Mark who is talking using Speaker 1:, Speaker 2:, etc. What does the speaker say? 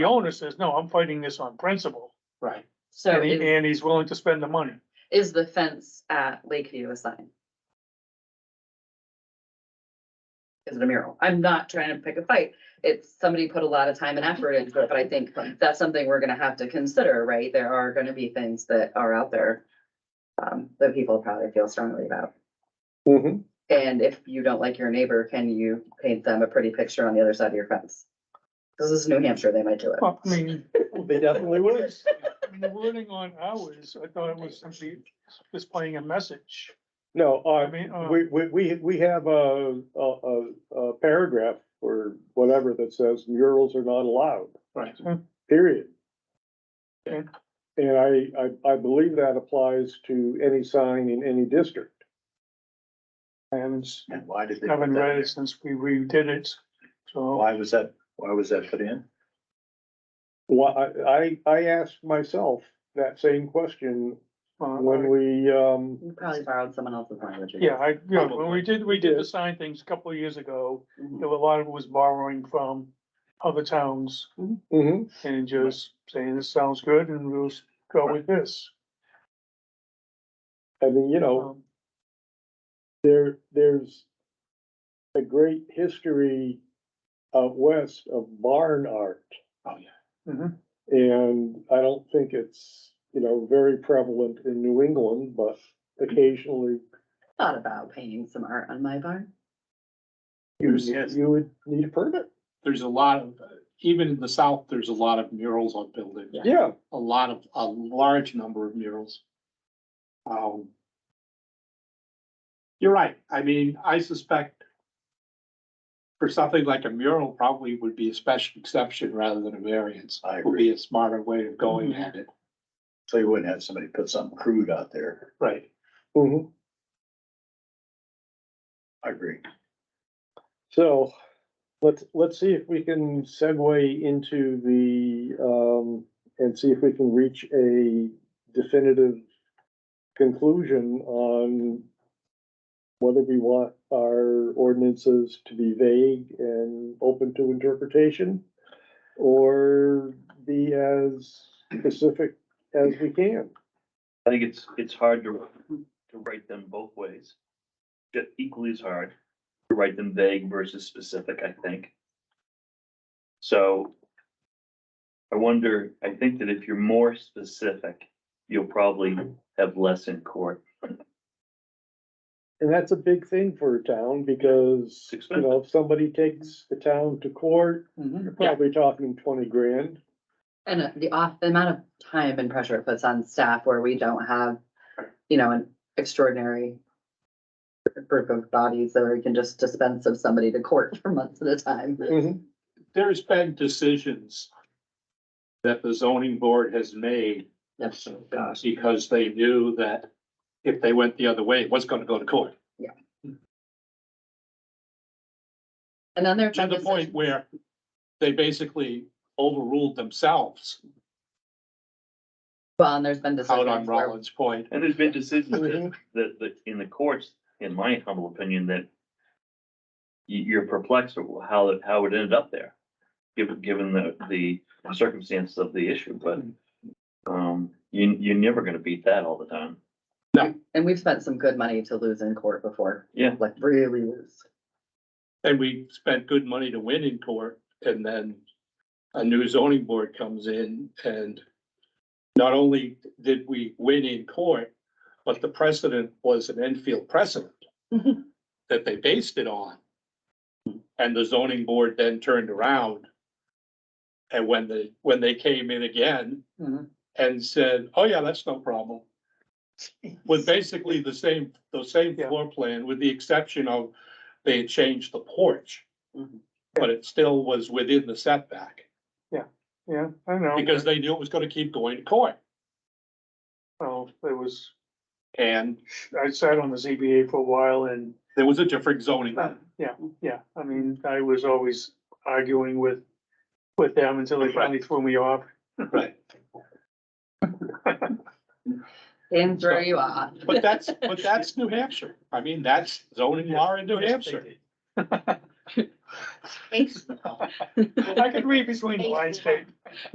Speaker 1: The owner says, no, I'm fighting this on principle,
Speaker 2: Right.
Speaker 3: So
Speaker 1: and, he-
Speaker 3: is,
Speaker 1: and he's willing to spend the money.
Speaker 3: is the fence at Lakeview a sign? Is it a mural? I'm not trying to pick a fight. It's, somebody put a lot of time and effort into it, but I think that's something we're gonna have to consider, right? There are gonna be things that are out there um, that people probably feel strongly about.
Speaker 2: Mm-hmm.
Speaker 3: And if you don't like your neighbor, can you paint them a pretty picture on the other side of your fence? This is New Hampshire, they might do it.
Speaker 1: Well, I mean,
Speaker 2: They definitely would.
Speaker 1: I mean, the wording on ours, I thought it was simply displaying a message.
Speaker 2: No,
Speaker 1: I
Speaker 2: uh,
Speaker 1: mean, uh,
Speaker 2: we, we, we, we have a, a, a, a paragraph or whatever that says murals are not allowed.
Speaker 4: Right.
Speaker 2: Period.
Speaker 1: Okay.
Speaker 2: And I, I, I believe that applies to any sign in any district.
Speaker 1: I haven't,
Speaker 4: And why did they? put
Speaker 1: haven't
Speaker 4: that
Speaker 1: read
Speaker 4: in?
Speaker 1: it since we redid it, so.
Speaker 4: Why was that, why was that put in?
Speaker 2: Why, I, I asked myself that same question
Speaker 1: uh,
Speaker 2: when we, um,
Speaker 3: You probably borrowed someone else's language.
Speaker 1: Yeah, I, yeah, when we did, we did
Speaker 2: Yeah.
Speaker 1: the sign things a couple of years ago,
Speaker 3: Mhm.
Speaker 1: there were a lot of it was borrowing from other towns
Speaker 2: mhm.
Speaker 1: and just saying, this sounds good and we'll s- go with this.
Speaker 2: I mean, you know,
Speaker 1: Um,
Speaker 2: there, there's a great history out west of barn art.
Speaker 4: Oh, yeah.
Speaker 1: mhm.
Speaker 2: And I don't think it's, you know, very prevalent in New England, but occasionally
Speaker 3: Thought about painting some art on my barn.
Speaker 2: you,
Speaker 4: Yes.
Speaker 2: you would need a permit.
Speaker 5: there's a lot of, even in the south, there's a lot of murals on buildings.
Speaker 2: Yeah,
Speaker 5: A lot of, a large number of murals. Um. You're right, I mean, I suspect. For something like a mural probably would be a special exception rather than a variance.
Speaker 4: I
Speaker 5: Would
Speaker 4: agree.
Speaker 5: be a smarter way of going at it.
Speaker 4: So you wouldn't have somebody put something crude out there.
Speaker 5: Right.
Speaker 2: mhm.
Speaker 4: I agree.
Speaker 2: So let's, let's see if we can segue into the, um, and see if we can reach a definitive conclusion on whether we want our ordinances to be vague and open to interpretation or be as specific as we can.
Speaker 6: I think it's, it's hard to, to write them both ways. Just equally as hard to write them vague versus specific, I think. So I wonder, I think that if you're more specific, you'll probably have less in court.
Speaker 2: And that's a big thing for a town because, you know, if somebody takes the town to court, you're probably talking twenty grand.
Speaker 3: And uh, the off, the amount of time and pressure it puts on staff where we don't have, you know, an extraordinary group of bodies that we can just dispense of somebody to court for months at a time.
Speaker 5: There's been decisions. That the zoning board has made
Speaker 3: Yes,
Speaker 5: uh, because they knew that if they went the other way, it was gonna go to court.
Speaker 3: And then there. are
Speaker 5: to the point where they basically overruled themselves
Speaker 3: Well, and there's been
Speaker 5: out on
Speaker 3: decisions where
Speaker 5: Rollins Point.
Speaker 6: And there's been decisions that, that, that in the courts, in my humble opinion, that you, you're perplexed at how, it- how it ended up there, given, given the, the circumstances of the issue, but um, you, you're never gonna beat that all the time.
Speaker 3: And we've spent some good money to lose in court before.
Speaker 6: Yeah.
Speaker 3: Like really lose.
Speaker 5: And we spent good money to win in court and then a new zoning board comes in and not only did we win in court, but the precedent was an Enfield precedent
Speaker 3: Mhm.
Speaker 5: that they based it on. And the zoning board then turned around. And when the, when they came in again
Speaker 1: Mhm.
Speaker 5: and said, oh yeah, that's no problem. With basically the same, the same
Speaker 1: Yeah.
Speaker 5: floor plan, with the exception of they had changed the porch.
Speaker 3: Mhm.
Speaker 5: But it still was within the setback,
Speaker 1: Yeah, I know.
Speaker 5: because they knew it was gonna keep going to court,
Speaker 1: Well, it was,
Speaker 5: and
Speaker 1: I sat on the ZBA for a while and,
Speaker 5: there was a different zoning.
Speaker 1: yeah, yeah, I mean, I was always arguing with, with them until they finally threw me off.
Speaker 5: Right.
Speaker 3: And throw you off.
Speaker 5: But that's, but that's New Hampshire, I mean, that's zoning law in New Hampshire,
Speaker 1: I could read between the lines, Dave.